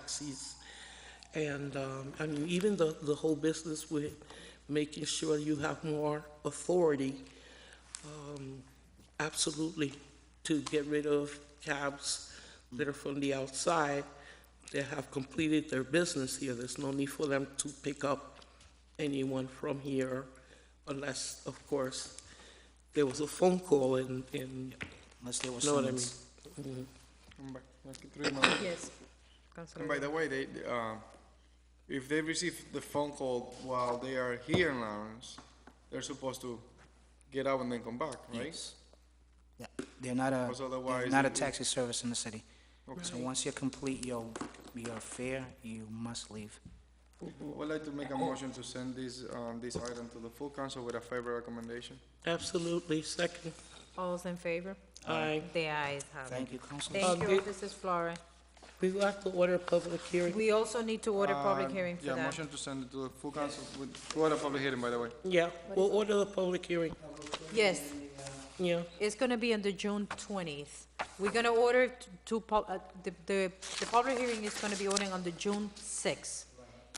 taxis. And, um, I mean, even the, the whole business with making sure you have more authority, um, absolutely, to get rid of cabs that are from the outside that have completed their business here. There's no need for them to pick up anyone from here unless, of course, there was a phone call and, and, Unless there was know what I someone- mean? Mhm. Come back, like in three months. And Yes, by Councilor. the way, they, they, um, if they receive the phone call while they are here in Lawrence, they're supposed to get out and then come back, right? Yes. Yeah, they're not a, Because they're otherwise not a it- taxi service in the city. So Okay. once you complete your, your fare, you must leave. I would like to make a motion to send this, um, this item to the full council with a favorable recommendation. Absolutely, second. All's in favor? Aye. The ayes have it. Thank you, Councilman. Thank Um, you, it- Mrs. Flores. We will have to order a public hearing. We also need to order public Um, hearing for Yeah, that. motion to send it to the full council with, what a public hearing, by the way. Yeah, we'll order the public hearing, Yes, yeah. it's gonna be on the June twentieth. We're gonna order t- to, pub- uh, the, the, the public hearing is gonna be ordering on the June sixth.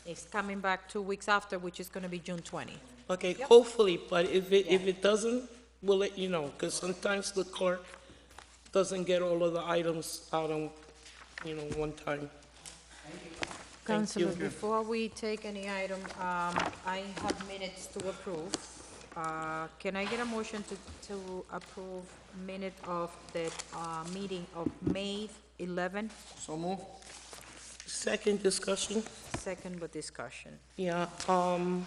It's coming back two weeks after, which is gonna be June twentieth. Okay, Yep. hopefully, but if it, if it doesn't, we'll let you know, because sometimes the clerk doesn't get all of the items out on, you know, one time. Thank Councilor, you. before we take any item, um, I have minutes to approve. Uh, Can I get a motion to, to approve minute of the uh, meeting of May 11, So move. Second discussion, second with discussion? yeah, um,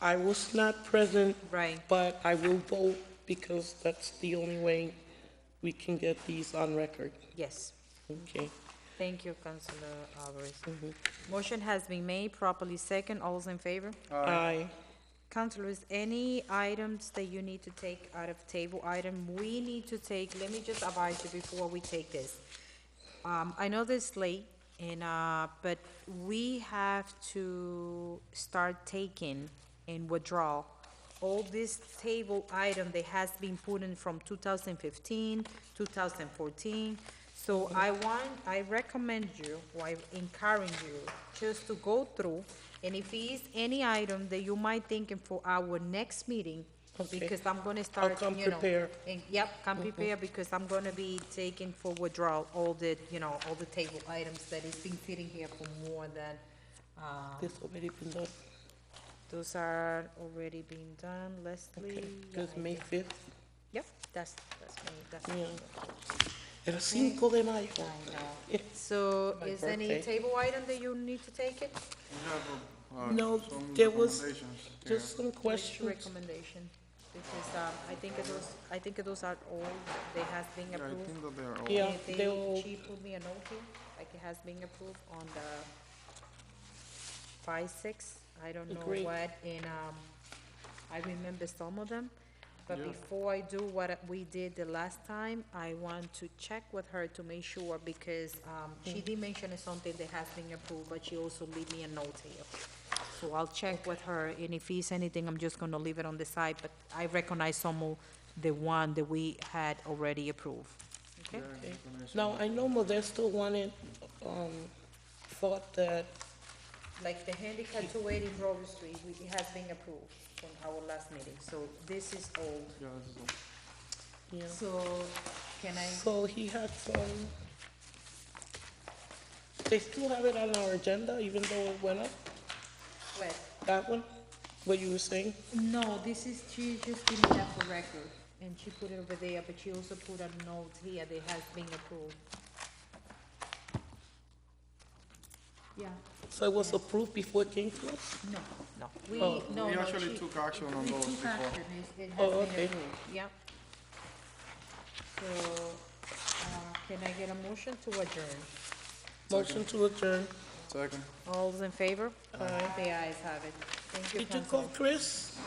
I was not present, Right, but I will vote because that's the only way we can get these on record, yes. okay? Thank you, Councilor Alvarez. Mm-hmm. Motion has been made, properly second, all's in favor? Aye. Councilors, any items that you need to take out of table item, we need to take, let me just advise you before we take this. Um, I know this is late, and, uh, but we have to start taking and withdraw all this table item that has been put in from 2015, 2014. So I want, I recommend you, or I encourage you, just to go through, and if it's any item that you might thinking for our next meeting, Okay. because I'm gonna start, come you know. prepared. And, yep, come prepared, because I'm gonna be taking for withdrawal all the, you know, all the table items that is been sitting here for more than, uh, This already been done, those are already being done, Leslie. okay, because May fifth, Yep, that's, that's me, that's yeah. me. El cinco de mayo. I know. So My is any birthday. table item that you need to take it? We have, uh, No, some there was recommendations here. Just some What's your questions. Recommendation, because, um, I think it was, I think those are all, they has been Yeah, I approved. think that they are all. Yeah, If they all- She put me a note here, like it has been approved on the five, six, I don't know Agreed. what, and, um, I remember some of them. But before I do what we did the last time, I want to check with her to make sure, because, um, Mm. she did mention something that has been approved, but she also leave me a note here. So I'll check with her, and if it's anything, I'm just gonna leave it on the side, but I recognize some of the one that we had already approved, okay? Now, I know Modesto wanted, um, thought that, Like the handicap two eighty Broad Street, we- it has been approved from our last meeting, so this is old. Yeah, this is all. you know, So, can I? so he had some, they still have it on our agenda, even though it went up, Wait. that one, what you were saying? No, this is, she just gave me that for record, and she put it over there, but she also put a note here that has been approved. Yeah, So it was approved before it came to us? no. No. We, Oh. no, We no, actually she- took action on we those took before. action. It- it has Oh, been okay. approved. Yeah. So, uh, can I get a motion to adjourn? Motion to adjourn. Second. All's in favor? Aye. The ayes have it. Thank you, Did you Councilor. call Chris?